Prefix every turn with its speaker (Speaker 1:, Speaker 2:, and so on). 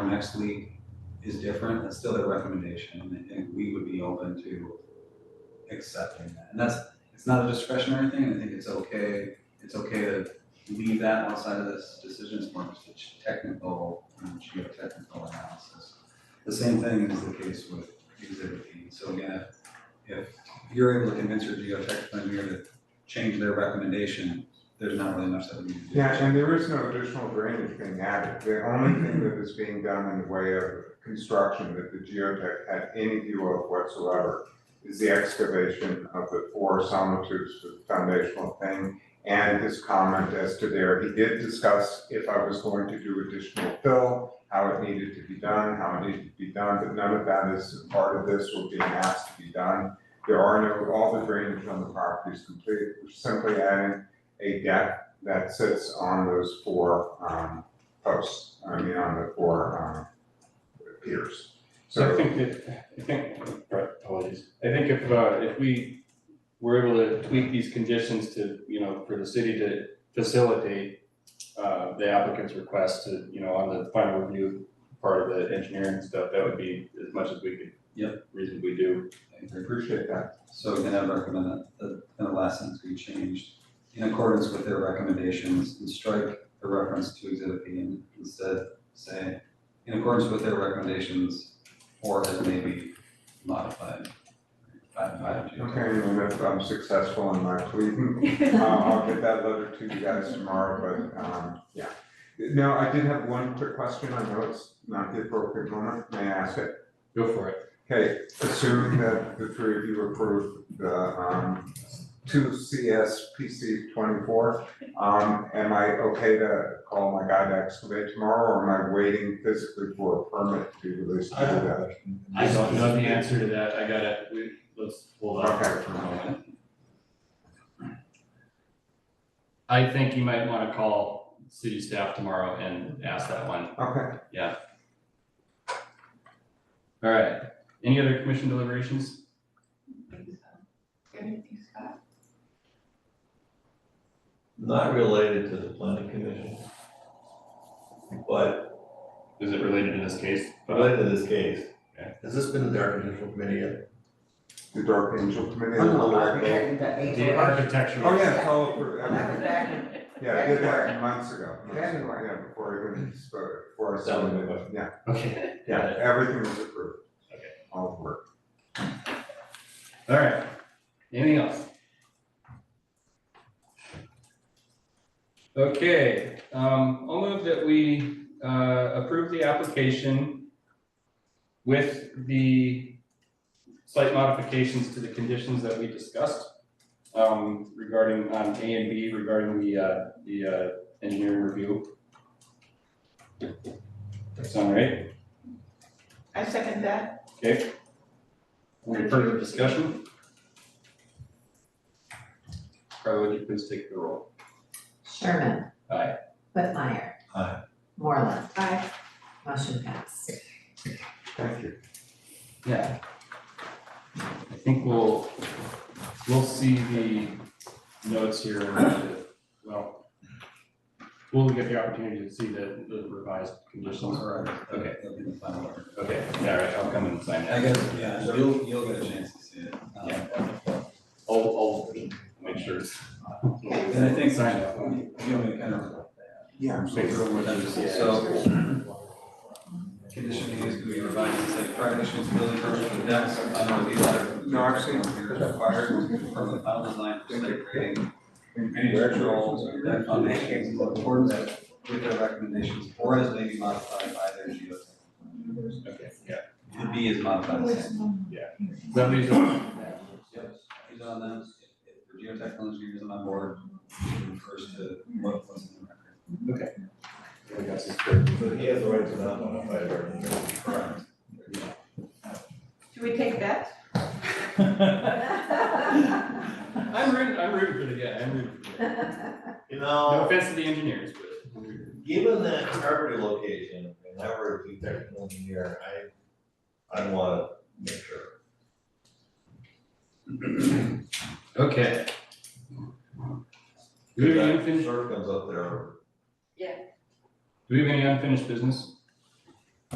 Speaker 1: next week is different, that's still their recommendation, and- and we would be open to accepting that. And that's, it's not a discretionary thing, I think it's okay, it's okay to leave that outside of this decision, it's more just a ch- technical, um, geotechnical analysis. The same thing is the case with exhibit E, so again, if, if you're able to convince your geotech engineer to change their recommendation, there's not really much that we can do.
Speaker 2: Yeah, and there is no additional drainage being added. The only thing that is being done in the way of construction that the geotech had any view of whatsoever is the excavation of the four sonotubes for the foundational thing and his comment as to there. He did discuss if I was going to do additional fill, how it needed to be done, how it needed to be done, but none of that is part of this or being asked to be done. There are no, all the drainage on the property is complete, We're simply adding a deck that sits on those four um posts, I mean, on the four um piers.
Speaker 3: So I
Speaker 2: So,
Speaker 3: think that, I think, right, apologies, I think if, uh, if we were able to tweak these conditions to, you know, for the city to facilitate uh, the applicant's request to, you know, on the final review part of the engineering stuff, that would be as much as we could.
Speaker 1: Yep.
Speaker 3: Reasonably do.
Speaker 2: I appreciate that.
Speaker 1: So again, I recommend that the, the last sentence be changed in accordance with their recommendations and strike the reference to exhibit B and instead say in accordance with their recommendations or as may be modified. by- by the
Speaker 2: Okay, and if I'm successful in my pleading, uh, I'll get that letter to you guys tomorrow, but um, yeah. Now, I did have one quick question, I know it's not the appropriate moment, may I ask it?
Speaker 3: Go for it.
Speaker 2: Okay, assuming that the three of you approve the um two CS PC twenty-four, um am I okay to call my guy to excavate tomorrow or am I waiting physically for a permit to be released to do that?
Speaker 4: I don't know the answer to that, I gotta, we, let's hold on
Speaker 2: Okay.
Speaker 4: for a moment. I think you might wanna call city staff tomorrow and ask that one,
Speaker 2: Okay,
Speaker 4: alright, any other commission deliberations?
Speaker 5: Not related to the planning commission. But
Speaker 4: Is it related in this case?
Speaker 5: related to this case.
Speaker 4: Okay.
Speaker 5: Has this been in the architectural committee yet?
Speaker 2: the Dark Angel Committee.
Speaker 6: Architect, the
Speaker 4: The
Speaker 6: angel.
Speaker 4: architectural.
Speaker 2: Oh, yeah, call it for,
Speaker 6: That was
Speaker 2: yeah,
Speaker 6: back
Speaker 2: I did that months ago, months ago,
Speaker 6: February.
Speaker 2: yeah, before I even spoke, before I
Speaker 5: That was
Speaker 2: started,
Speaker 5: my question.
Speaker 2: yeah,
Speaker 4: Okay, got
Speaker 2: yeah,
Speaker 4: it,
Speaker 2: everything was approved.
Speaker 4: Okay.
Speaker 2: All the work.
Speaker 4: alright, anything else? Okay, um, I'll move that we, uh, approve the application with the slight modifications to the conditions that we discussed, um, regarding, on A and B regarding the, uh, the, uh, engineering review. That sound right?
Speaker 6: I second that.
Speaker 4: Okay. Any further discussion? Carla, would you please take the roll?
Speaker 7: Sherman.
Speaker 4: Aye.
Speaker 7: Whitmire.
Speaker 5: Aye.
Speaker 7: Moreland.
Speaker 6: Aye.
Speaker 7: Motion passed.
Speaker 2: Thank you.
Speaker 4: Yeah. I think we'll, we'll see the notes here, in the- well, we'll get the opportunity to see the, the revised
Speaker 1: conditions.
Speaker 4: conditions.
Speaker 1: All right,
Speaker 4: Okay.
Speaker 1: that'll be the final word.
Speaker 4: Okay, all right, I'll come and sign
Speaker 1: I
Speaker 4: that.
Speaker 1: guess, yeah, you'll, you'll get a chance to see it. Um,
Speaker 4: I'll, I'll make sure. it's-
Speaker 1: And I think,
Speaker 4: Sign that one.
Speaker 1: you know, we kind of.
Speaker 2: Yeah, I'm
Speaker 1: So, condition A is to be revised to say prior issuance of building permit for the decks, I don't know, these are.
Speaker 2: No, I've seen them.
Speaker 1: Here's required from the final design for site grading. Any
Speaker 2: Congratulations on your-
Speaker 1: deck foundations in accordance with their recommendations or as may be modified by their geotech.
Speaker 4: Okay, yeah.
Speaker 1: The B is modified the same.
Speaker 4: Somebody's on.
Speaker 1: Yep, he's on them, if the geotechnical engineer isn't on board, he refers to what was in the record.
Speaker 4: I guess it's good.
Speaker 5: So he has the right to not modify it or anything.
Speaker 1: Correct.
Speaker 6: Should we take that?
Speaker 4: I'm rooting, I'm rooting for the guy, I'm rooting for the guy.
Speaker 5: You
Speaker 4: No
Speaker 5: know,
Speaker 4: offense to the engineers, but. I'm rooting.
Speaker 5: given that property location, and I were a technical engineer, I, I wanna make sure.
Speaker 4: Okay. Do we have any
Speaker 5: If that
Speaker 4: unfinished,
Speaker 5: Sort of comes up there.
Speaker 4: do we have any unfinished business?